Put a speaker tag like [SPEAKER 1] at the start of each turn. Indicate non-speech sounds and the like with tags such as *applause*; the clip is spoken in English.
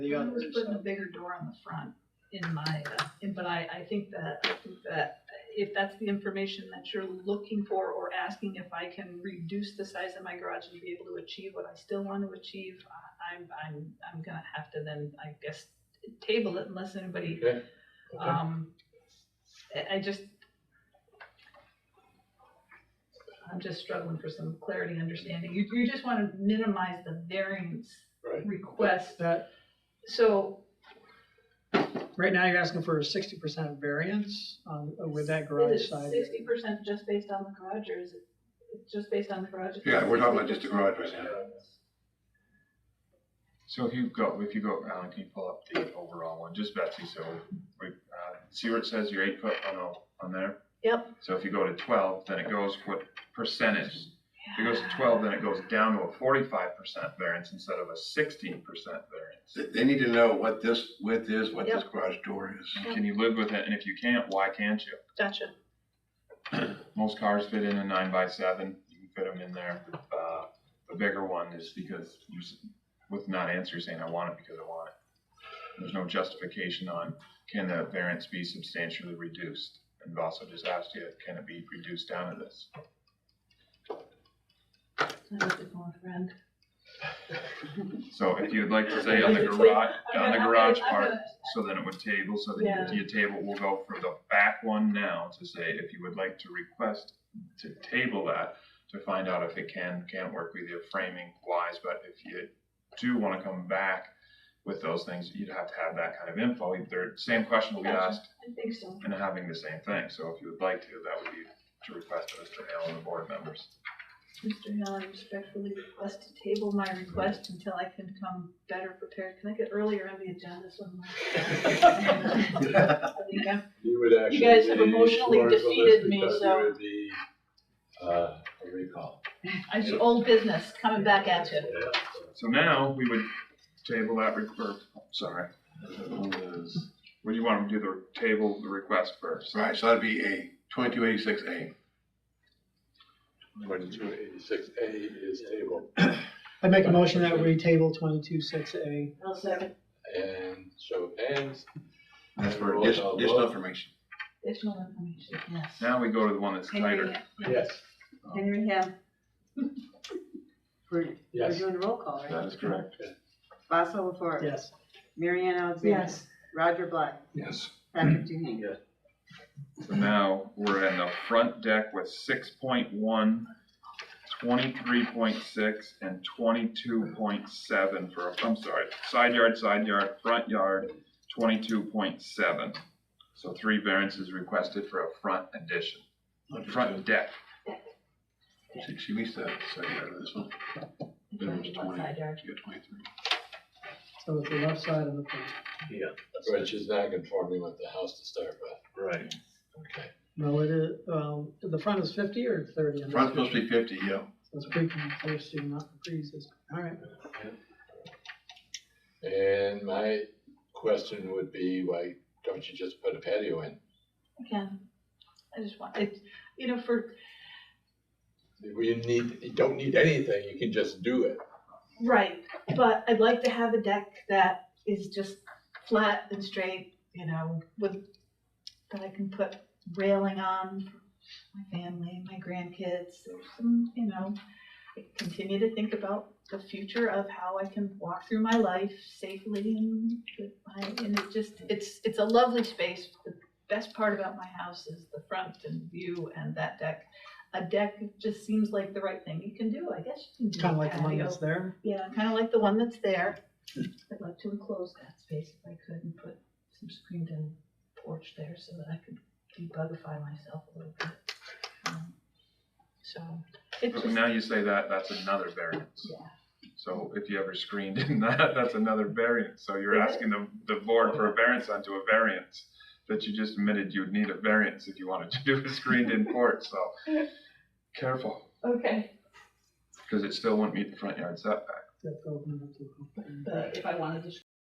[SPEAKER 1] the
[SPEAKER 2] I was
[SPEAKER 1] others,
[SPEAKER 2] putting a
[SPEAKER 1] so.
[SPEAKER 2] bigger door on the front in my, uh, in- but I, I think that, I think that if that's the information that you're looking for or asking if I can reduce the size of my garage and be able to achieve what I still want to achieve, I- I'm, I'm, I'm gonna have to then, I guess, table it unless anybody,
[SPEAKER 3] Okay. Okay.
[SPEAKER 2] um, I, I just, I'm just struggling for some clarity, understanding. You, you just wanna minimize the variance
[SPEAKER 3] Right.
[SPEAKER 2] request
[SPEAKER 1] That,
[SPEAKER 2] so,
[SPEAKER 1] right now you're asking for a sixty percent variance on, with that
[SPEAKER 2] is
[SPEAKER 1] garage
[SPEAKER 2] it
[SPEAKER 1] side.
[SPEAKER 2] sixty percent just based on the garage, or is it it's just based on the garage? Is it
[SPEAKER 4] Yeah, we're talking about just the
[SPEAKER 2] 60%?
[SPEAKER 4] garage right now.
[SPEAKER 5] So if you go, if you go, Alan, can you pull up the overall one, just Betsy, so we, uh, see where it says your eight foot on the, on there?
[SPEAKER 2] Yep.
[SPEAKER 5] So if you go to twelve, then it goes what percentage, if it goes to twelve, then it goes down to a forty-five percent variance instead of a sixteen percent variance.
[SPEAKER 4] They, they need to know what this width is, what this garage door is.
[SPEAKER 5] And Can you live with it, and if you can't, why can't you?
[SPEAKER 2] Gotcha,
[SPEAKER 5] Most cars fit in a nine by seven, you can fit them in there, uh, the bigger one is because you, s- with not answering, saying I want it because I want it. There's no justification on can the variance be substantially reduced? And we've also just asked you, can it be reduced down to this?
[SPEAKER 2] I was just going around.
[SPEAKER 5] So if you'd like to say on the garage, on the garage part, so then it would table, so then
[SPEAKER 2] Yeah.
[SPEAKER 5] you- your table will go for the back one now to say if you would like to request to table that, to find out if it can, can work with your framing wise, but if you do wanna come back with those things, you'd have to have that kind of info, either, same question will be
[SPEAKER 2] Gotcha.
[SPEAKER 5] asked
[SPEAKER 2] I think so,
[SPEAKER 5] and having the same thing, so if you would like to, that would be to request of Mr. Hale and the board members.
[SPEAKER 2] Mr. Allen respectfully request to table my request until I can come better prepared, can I get earlier on the agenda *laughs* sometime? I think I'm
[SPEAKER 6] You would actually.
[SPEAKER 2] guys have
[SPEAKER 6] be
[SPEAKER 2] emotionally
[SPEAKER 6] scorned for this
[SPEAKER 2] defeated me,
[SPEAKER 6] because you
[SPEAKER 2] so-
[SPEAKER 6] would be, Uh, a recall.
[SPEAKER 2] I should, old business, coming back at you.
[SPEAKER 6] Yeah.
[SPEAKER 5] So now, we would table that, re- or, sorry, Would you want to do the table, the request first?
[SPEAKER 4] Right, so that'd be a twenty-two eighty-six A.
[SPEAKER 6] Twenty-two eighty-six A is table,
[SPEAKER 1] I make a motion that we table twenty-two six A.
[SPEAKER 2] I'll second.
[SPEAKER 6] and show of hands.
[SPEAKER 4] That's for
[SPEAKER 6] Roll
[SPEAKER 4] additional
[SPEAKER 6] call
[SPEAKER 4] additional
[SPEAKER 6] vote.
[SPEAKER 4] information.
[SPEAKER 2] Additional information, yes.
[SPEAKER 5] Now we go to the one that's
[SPEAKER 7] Henry,
[SPEAKER 5] tighter.
[SPEAKER 6] Yes,
[SPEAKER 7] Henry Hale. We're, we're
[SPEAKER 6] yes.
[SPEAKER 7] doing a roll call, right?
[SPEAKER 5] That is correct.
[SPEAKER 7] Basil LaFors.
[SPEAKER 1] Yes.
[SPEAKER 7] Marianne Alexander. Roger Black.
[SPEAKER 4] Yes.
[SPEAKER 7] Patrick Duhane.
[SPEAKER 5] So now we're in the front deck with 6.1, 23.6, and twenty-two point seven for, a- I'm sorry, side yard, side yard, front yard, twenty-two point seven. So three variances requested for a front addition, front deck.
[SPEAKER 4] She, she missed that second part of this one. Then it was
[SPEAKER 2] What
[SPEAKER 4] 20.
[SPEAKER 2] side yard?
[SPEAKER 4] She got twenty-three.
[SPEAKER 1] So it's the left side of the front.
[SPEAKER 6] Which is not conforming with the house to start with.
[SPEAKER 3] Right.
[SPEAKER 6] Okay.
[SPEAKER 1] No, it is, well, the front is fifty or thirty? I'm
[SPEAKER 4] Front's
[SPEAKER 1] not
[SPEAKER 4] supposed
[SPEAKER 1] sure.
[SPEAKER 4] to be fifty, yeah.
[SPEAKER 1] So It's pre-existing, not pre-existing. All right.
[SPEAKER 6] And my question would be, why don't you just put a patio in?
[SPEAKER 2] Again, I just want, it, you know, for,
[SPEAKER 6] We need, you don't need anything, you can just do it.
[SPEAKER 2] right, but I'd like to have a deck that is just flat and straight, you know, with, that I can put railing on for my family, my grandkids, there's some, you know, I continue to think about the future of how I can walk through my life safely and with my, and it just, it's, it's a lovely space. The best part about my house is the front and view and that deck. A deck just seems like the right thing you can do, I guess you can do a
[SPEAKER 1] Kind of like the one
[SPEAKER 2] patio.
[SPEAKER 1] that's there.
[SPEAKER 2] Yeah, kind of like the one that's there. I'd like to enclose that space if I could and put some screened-in porch there so that I could debugify myself a little bit. Um, So, it
[SPEAKER 5] But
[SPEAKER 2] just,
[SPEAKER 5] Now you say that, that's another variance.
[SPEAKER 2] yeah.
[SPEAKER 5] So if you ever screened in *laughs* that, that's another variance. So you're
[SPEAKER 2] Is it?
[SPEAKER 5] asking the, the board for a variance onto a variance that you just admitted you'd need a variance if you wanted to do a screened in porch, so careful,
[SPEAKER 2] Okay.
[SPEAKER 5] because it still wouldn't meet the front yard setback.
[SPEAKER 1] That's open up to-
[SPEAKER 2] But if I wanted to